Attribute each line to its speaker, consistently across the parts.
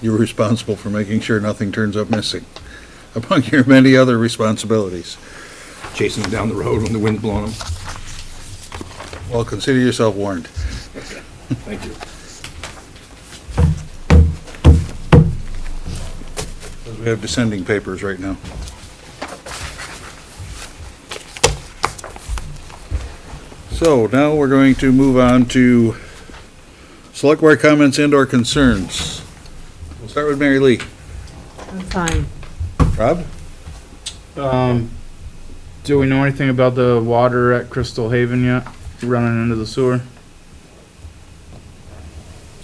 Speaker 1: You're responsible for making sure nothing turns up missing, among your many other responsibilities.
Speaker 2: chasing them down the road when the wind's blowing them.
Speaker 1: Well, consider yourself warned.
Speaker 2: Thank you.
Speaker 1: We have descending papers right now. So now we're going to move on to select board comments and or concerns. We'll start with Mary Lee.
Speaker 3: I'm fine.
Speaker 1: Rob?
Speaker 4: Um, do we know anything about the water at Crystal Haven yet? Running into the sewer?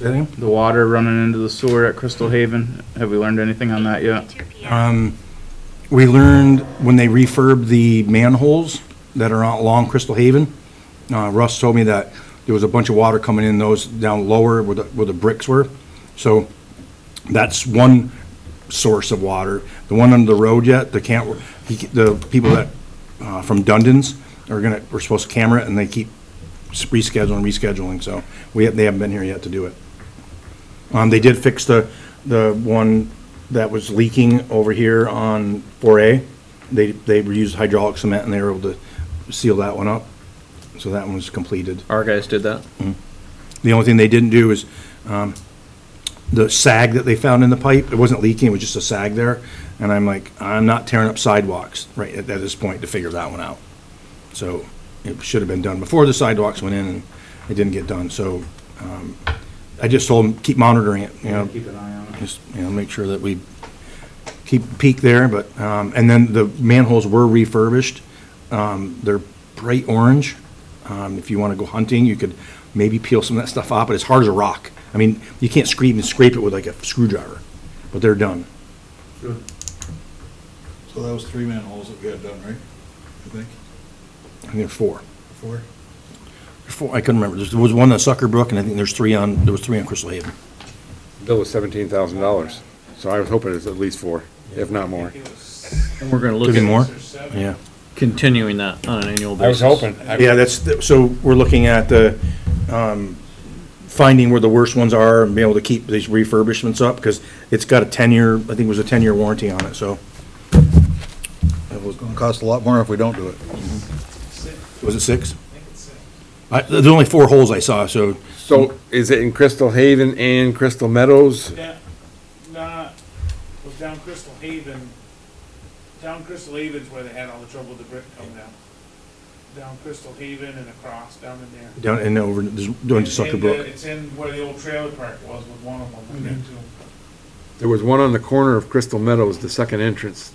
Speaker 4: The water running into the sewer at Crystal Haven? Have we learned anything on that yet?
Speaker 2: Um, we learned when they refurbed the manholes that are out along Crystal Haven, uh, Russ told me that there was a bunch of water coming in those down lower where the, where the bricks were. So that's one source of water. The one under the road yet, the can't, he, the people that, uh, from Dundon's are gonna, we're supposed to camera it and they keep s- rescheduling, rescheduling, so we, have- they haven't been here yet to do it. Um, they did fix the, the one that was leaking over here on four A. They, they used hydraulic cement and they were able to seal that one up. So that one was completed.
Speaker 5: Our guys did that.
Speaker 2: The only thing they didn't do is, um, the sag that they found in the pipe, it wasn't leaking, it was just a sag there. And I'm like, I'm not tearing up sidewalks right at, at this point to figure that one out. So it should have been done before the sidewalks went in and it didn't get done. So, um, I just told them, keep monitoring it, you know,
Speaker 4: an eye on
Speaker 2: just, you know, make sure that we keep peak there, but, um, and then the manholes were refurbished. Um, they're bright orange. Um, if you want to go hunting, you could maybe peel some of that stuff off, but it's hard as a rock. I mean, you can't scrape and scrape it with like a screwdriver, but they're done.
Speaker 1: So that was three manholes that we had done, right? I think,
Speaker 2: I think there's four.
Speaker 1: four?
Speaker 2: Four, I couldn't remember. There's- There was one on Sucker Brook, and I think there's three on, there was three on Crystal Haven.
Speaker 6: bill was seventeen thousand dollars, so I was hoping it's at least four, if not more.
Speaker 5: And we're gonna
Speaker 2: Could
Speaker 5: look
Speaker 2: be more?
Speaker 5: at
Speaker 2: Yeah.
Speaker 5: continuing that on an annual basis.
Speaker 2: Yeah, that's, the- so we're looking at the, um, finding where the worst ones are and being able to keep these refurbishments up, because it's got a ten-year, I think it was a ten-year warranty on it, so,
Speaker 1: It's gonna cost a lot more if we don't do it.
Speaker 2: was it six? I, there's only four holes I saw, so,
Speaker 6: So is it in Crystal Haven and Crystal Meadows?
Speaker 7: Yeah, nah, it was down Crystal Haven. Down Crystal Haven's where they had all the trouble with the brick coming down. Down Crystal Haven and across down in there.
Speaker 2: down and over, there's, down to
Speaker 7: It's in
Speaker 2: Sucker
Speaker 7: the-
Speaker 2: Brook. Mm-hmm.
Speaker 7: It's in where the old trailer park was with one of them, I think, too.
Speaker 6: There was one on the corner of Crystal Meadows, the second entrance.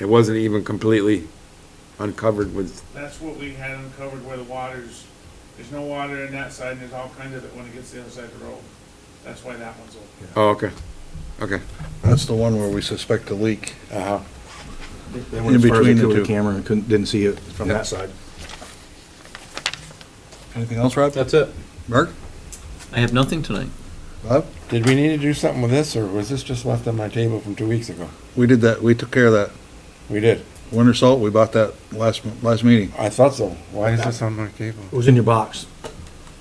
Speaker 6: It wasn't even completely uncovered with,
Speaker 7: That's what we had uncovered where the waters, there's no water in that side and there's all kinds of it when it gets to the other side of the road. That's why that one's open.
Speaker 6: oh, okay, okay.
Speaker 1: That's the one where we suspect a leak.
Speaker 6: Uh-huh.
Speaker 2: They went as
Speaker 1: In
Speaker 2: far as they
Speaker 1: between the
Speaker 2: could with
Speaker 1: two.
Speaker 2: the camera and couldn't, didn't see it from that side.
Speaker 1: Anything else, Rob?
Speaker 5: That's it.
Speaker 1: Mark?
Speaker 5: I have nothing tonight.
Speaker 1: Bob?
Speaker 6: Did we need to do something with this, or was this just left on my table from two weeks ago?
Speaker 1: We did that, we took care of that.
Speaker 6: We did.
Speaker 1: Winter salt, we bought that last, last meeting.
Speaker 6: I thought so. Why is this on my table?
Speaker 2: It was in your box.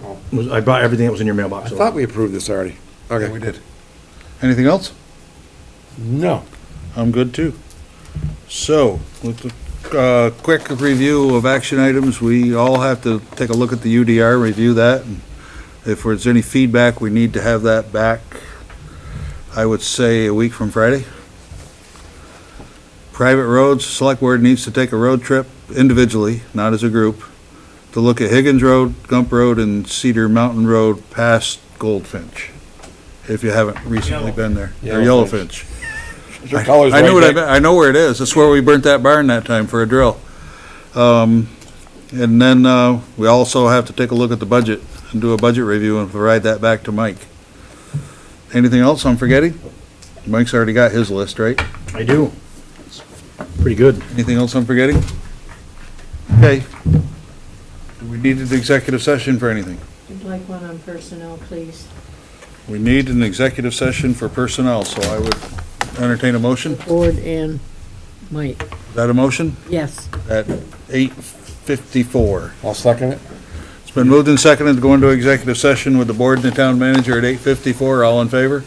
Speaker 6: Oh.
Speaker 2: It was- I bought everything that was in your
Speaker 6: I
Speaker 2: mailbox. so-
Speaker 6: thought we approved this already. Okay.
Speaker 1: did. Anything else?
Speaker 6: No.
Speaker 1: I'm good too. So, with a uh, quick review of action items, we all have to take a look at the UDR, review that. and If there's any feedback, we need to have that back, I would say, a week from Friday. Private roads, select board needs to take a road trip individually, not as a group, to look at Higgins Road, Gump Road, and Cedar Mountain Road past Goldfinch, if you haven't recently been there. Or
Speaker 6: Yellowfinch.
Speaker 1: Yellowfinch. I know what I, meant. I know where it is. That's where we burnt that barn that time for a drill. Um, and then, uh, we also have to take a look at the budget and do a budget review and provide that back to Mike. Anything else I'm forgetting? Mike's already got his list, right?
Speaker 2: I do. It's Pretty good.
Speaker 1: Anything else I'm forgetting? Okay. Do we need an executive session for anything?
Speaker 3: I'd like one on personnel, please.
Speaker 1: We need an executive session for personnel, so I would entertain a motion. Is
Speaker 3: Board and Mike,
Speaker 1: that a motion?
Speaker 3: yes.
Speaker 1: At eight fifty-four.
Speaker 6: I'll second it.
Speaker 1: It's been moved and seconded to go into executive session with the board and the town manager at eight fifty-four. All in favor?